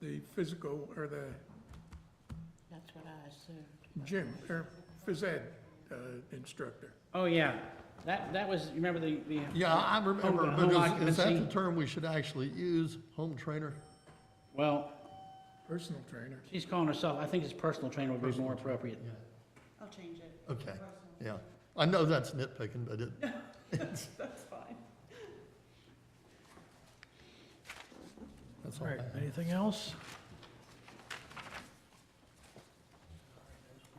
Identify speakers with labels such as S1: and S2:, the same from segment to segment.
S1: the physical or the
S2: That's what I assumed.
S1: gym or phys ed uh, instructor.
S3: Oh, yeah, that, that was, you remember the, the,
S4: Yeah, I
S3: Home-
S4: remember,
S3: home
S4: because is that the
S3: occupancy.
S4: term we should actually use, home trainer?
S3: well,
S1: Personal trainer.
S3: she's calling herself, I think it's personal trainer would be more appropriate.
S5: I'll change it.
S4: Okay, yeah. I know that's nitpicking, but it, it's,
S5: That's fine.
S4: that's all
S6: All
S4: I
S6: right,
S4: have.
S6: anything else?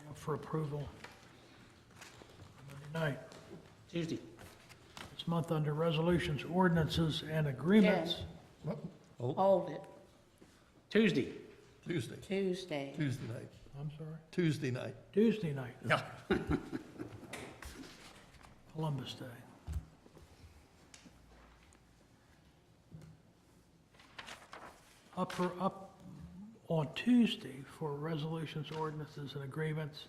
S6: Up For approval. Monday night,
S3: Tuesday,
S6: this month under resolutions, ordinances, and agreements.
S2: Jen,
S4: Oh,
S2: Hold it,
S3: Tuesday,
S4: Tuesday,
S2: Tuesday.
S4: Tuesday night,
S6: I'm sorry,
S4: Tuesday night.
S6: Tuesday night,
S4: Yeah.
S6: Columbus Day. Up for, up on Tuesday for resolutions, ordinances, and agreements.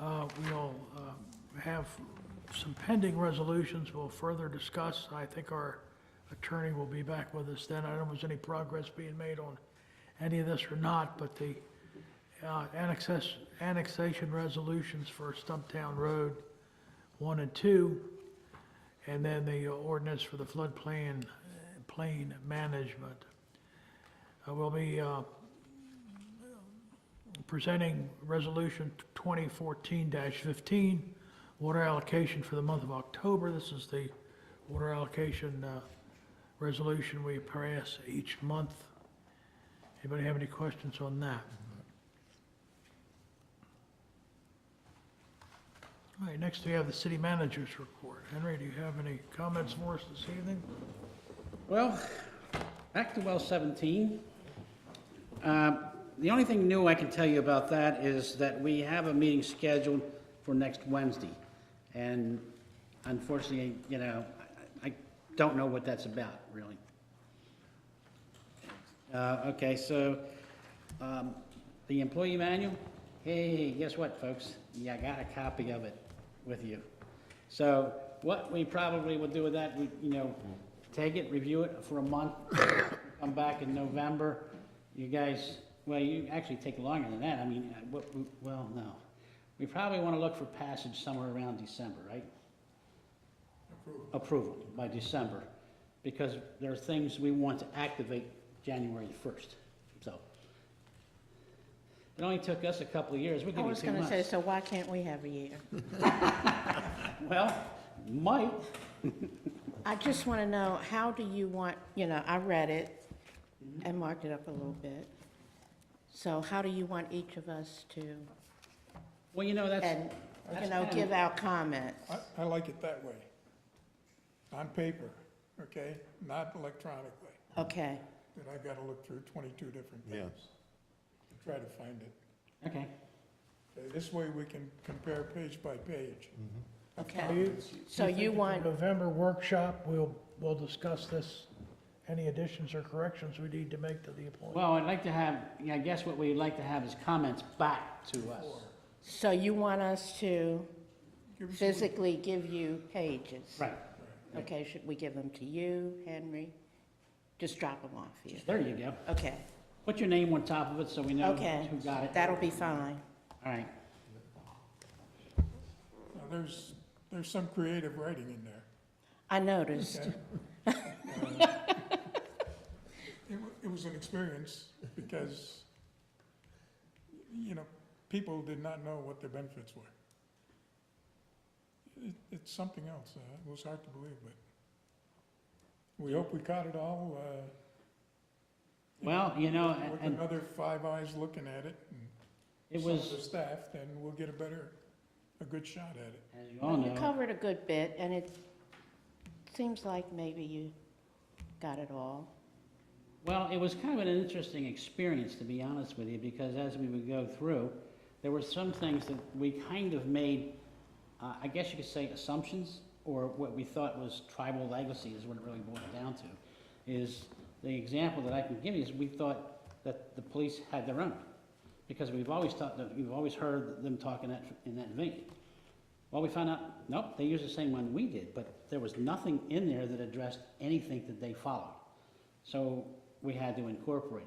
S6: Uh, We'll um, have some pending resolutions we'll further discuss. I think our attorney will be back with us then. I don't know if there's any progress being made on any of this or not, but the uh, annexes- annexation resolutions for Stumptown Road 1 and 2, and then the ordinance for the floodplain, uh, plain management. Uh, We'll be uh, presenting Resolution 2014-15, water allocation for the month of October. This is the water allocation uh, resolution we pass each month. Anybody have any questions on that? All right, next we have the city manager's report. Henry, do you have any comments for us this evening?
S3: Well, back to well 17. Uh, The only thing new I can tell you about that is that we have a meeting scheduled for next Wednesday. And unfortunately, you know, I I don't know what that's about, really. Uh, Okay, so um, the employee manual, hey, guess what, folks? Yeah, I got a copy of it with you. So what we probably will do with that, we, you know, take it, review it for a month, come back in November. You guys, well, you actually take longer than that. I mean, uh, what, we- well, no. We probably want to look for passage somewhere around December, right? Approval by December, because there are things we want to activate January first, so. It only took us a couple of years, we're
S2: I
S3: gonna
S2: was
S3: two
S2: gonna say,
S3: months.
S2: so why can't we have a year?
S3: Well, might,
S2: I just wanna know, how do you want, you know, I read it and marked it up a little bit. So how do you want each of us to,
S3: well, you know, that's,
S2: and, you
S3: that's
S2: know,
S3: kinda-
S2: give our comments?
S1: I, I like it that way. On paper, okay, not electronically.
S2: Okay,
S1: Then I've got to look through twenty-two different things. to Try to find it.
S3: okay.
S1: Okay, This way we can compare page by page.
S2: okay. So
S6: think
S2: you
S6: at the
S2: want,
S6: November workshop, we'll, we'll discuss this, any additions or corrections we need to make to the appointment.
S3: Well, I'd like to have, yeah, I guess what we'd like to have is comments back to us.
S2: so you want us to
S1: Give us a look.
S2: physically give you pages?
S3: Right,
S2: Okay, should we give them to you, Henry? Just drop them off here.
S3: there you go.
S2: Okay,
S3: Put your name on top of it so we know
S2: okay.
S3: who got it.
S2: That'll be fine.
S3: All right,
S1: Now, there's, there's some creative writing in there.
S2: I noticed.
S1: okay? Um, It, wa- it was an experience because, you know, people did not know what their benefits were. It, it's something else. Uh, it was hard to believe, but we hope we caught it all. Uh, you
S3: well, you know,
S1: know, with
S3: and
S1: another five eyes looking at it and
S3: it
S1: some of the
S3: was,
S1: staff, then we'll get a better, a good shot at it.
S3: as you all
S2: You
S3: know,
S2: covered a good bit, and it seems like maybe you got it all.
S3: well, it was kind of an interesting experience, to be honest with you, because as we would go through, there were some things that we kind of made, uh, I guess you could say assumptions, or what we thought was tribal legacy is what it really boiled down to. Is the example that I can give you is we thought that the police had their own, because we've always thought that, we've always heard them talk in that, in that vein. Well, we found out, nope, they used the same one we did, but there was nothing in there that addressed anything that they followed. So we had to incorporate it.